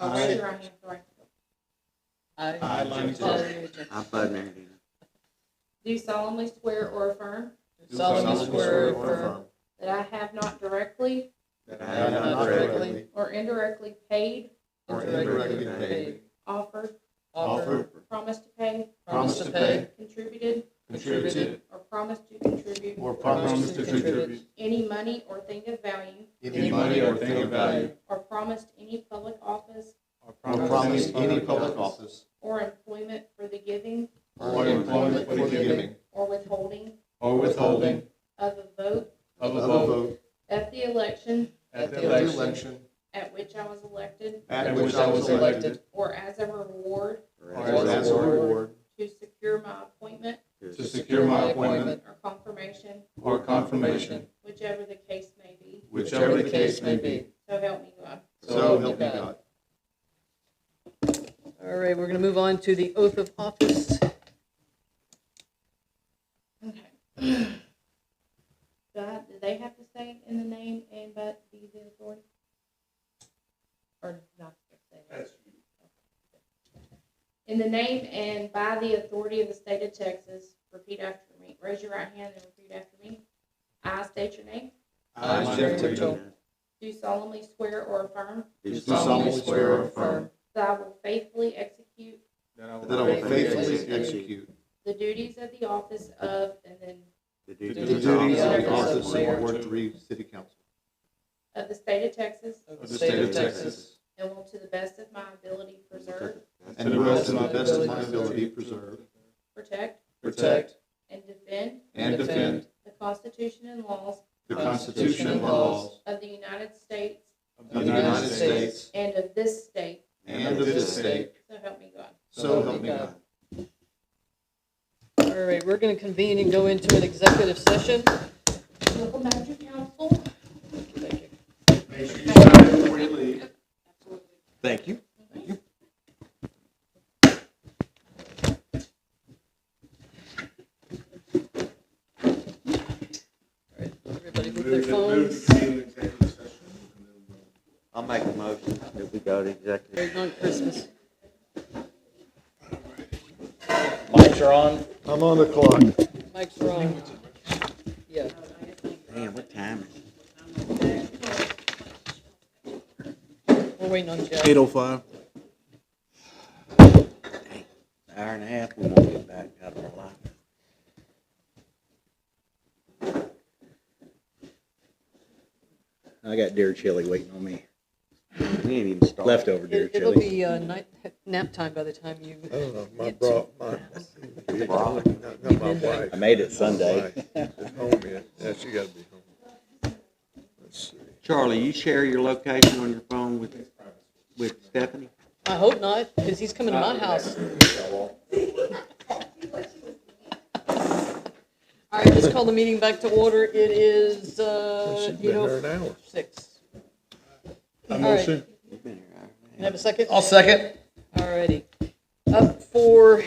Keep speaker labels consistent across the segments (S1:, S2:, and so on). S1: Raise
S2: Aye.
S1: your right hand, Dorian.
S2: I, Lonnie Terry,
S3: I, Bud Meredith.
S1: Do solemnly swear or affirm
S2: do
S4: solemnly swear or affirm
S1: that I have not directly
S2: that I have not directly
S1: or indirectly paid,
S2: or
S4: indirectly
S2: indirectly paid,
S1: offered,
S4: offer,
S2: offered,
S1: promised to pay,
S4: promise to pay,
S1: contributed,
S4: contributed,
S1: or promised to contribute
S2: or
S4: promise to contribute
S1: any money or thing of value,
S4: any money or thing of value,
S1: or promised any public office
S2: or
S4: or
S2: promise any public office
S4: office,
S1: or employment for the giving
S4: or employment for the giving,
S1: or withholding
S4: or withholding
S1: of a vote
S2: of
S4: of a vote
S1: at the election
S4: at the
S2: at the
S4: election
S2: election
S1: at which I was elected
S4: at which I was elected,
S1: or as a reward
S2: or
S4: or
S2: as a reward
S1: to secure my appointment
S4: to secure my appointment
S1: or confirmation,
S4: or confirmation,
S1: whichever the case may be.
S4: whichever the case may be.
S1: So help me God.
S4: So help me God.
S5: All right, we're going to move on to the oath of office.
S1: Okay. God, do they have to say in the name and but be the authority? Or not say that? In the name and by the authority of the state of Texas, repeat after me. Raise your right hand and repeat after me. I state your name.
S4: I, Jeff Tipton,
S1: Do solemnly swear or affirm
S4: do
S3: Do
S4: solemnly swear or affirm
S1: that I will faithfully execute
S2: that
S4: that I will faithfully
S3: execute
S4: execute
S1: the duties of the office of, and then
S3: the
S4: the
S3: duties
S4: duties of the office
S3: office
S4: of
S3: of
S4: Ward Three City Council
S1: of the state of Texas,
S4: of the state of Texas,
S1: and will to the best of my ability preserve,
S4: and will to the best of my ability preserve,
S1: protect,
S4: protect,
S1: and defend
S4: and defend
S1: the Constitution and laws
S4: the Constitution and laws
S1: of the United States
S4: of the United States
S1: and of this state,
S4: and of this state,
S1: so help me God.
S4: so help me God.
S5: All right, we're going to convene and go into an executive session.
S1: Welcome back to council.
S5: Thank you.
S2: Make sure you sign before you leave.
S3: Thank you.
S5: All right, everybody with their
S2: Move to- move
S5: phones.
S2: to convene an executive session, and then we'll-
S3: I'll make a motion that we go to executive.
S5: Merry long Christmas.
S6: Lights are on.
S7: I'm on the clock.
S5: Mike's wrong. Yeah.
S3: Damn, what time is it?
S5: We're waiting on Jeff.
S7: Eight oh five.
S3: Hour and a half, we won't get back out of our life.
S6: I got deer chili waiting on me.
S3: We ain't even started.
S6: Leftover deer
S5: It- It'll
S6: chili.
S5: be uh, night, nap time by the time you,
S7: I don't know, my
S5: It's-
S7: bro, my,
S3: Bro.
S7: not not my wife.
S6: I made it Sunday.
S7: She's home yet. Yeah, she gotta be home. Let's see.
S3: Charlie, you share your location on your phone with, with Stephanie?
S5: I hope not, because he's coming to my house. All right, let's call the meeting back to order. It is uh,
S7: She's been
S5: eight
S7: there
S5: oh
S7: an hour.
S5: six.
S6: A
S5: motion.
S3: You've been here, all right.
S5: Can I have a second?
S6: I'll second.
S5: Alrighty. Up for,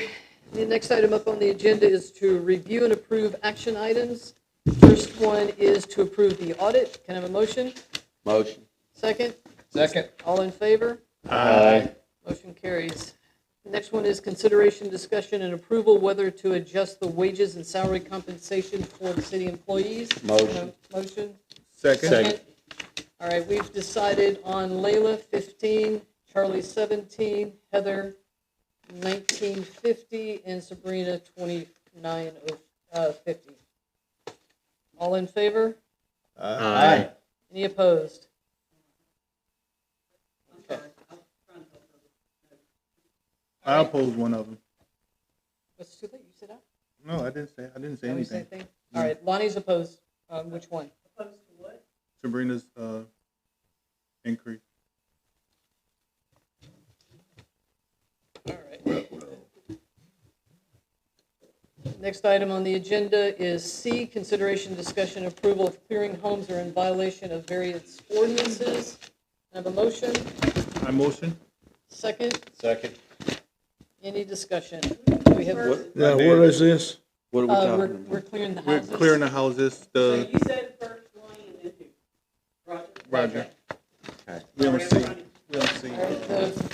S5: the next item up on the agenda is to review and approve action items. First one is to approve the audit. Can I have a motion?
S3: Motion.
S5: Second?
S6: Second.
S5: All in favor?
S6: Aye.
S5: Motion carries. The Next one is consideration, discussion, and approval whether to adjust the wages and salary compensation for the city employees.
S3: Motion.
S5: Motion.
S7: Second.
S5: All right, we've decided on Layla 15, Charlie 17, Heather 1950, and Sabrina 2950. All in favor?
S6: Aye.
S5: Any opposed?
S2: I opposed one of them.
S5: It's too late, you said aye.
S2: No, I didn't say, I didn't say
S5: Oh, you said
S2: anything.
S5: thing? All right, Lonnie's opposed. Um, Which one?
S2: Sabrina's, uh, increase.
S5: All right. Next item on the agenda is C, consideration, discussion, approval of clearing homes that are in violation of various ordinances. I have a motion,
S2: I motion.
S5: second,
S6: Second.
S5: any discussion? We have, uh,
S7: Now, what is this?
S3: What are we
S5: we're,
S3: talking
S5: we're
S3: about?
S5: clearing the
S2: We're
S5: houses.
S2: clearing the houses, the. you said first Lonnie and then who? Roger.
S3: Okay.
S2: Roger. We received,
S8: We don't see.
S2: All right, so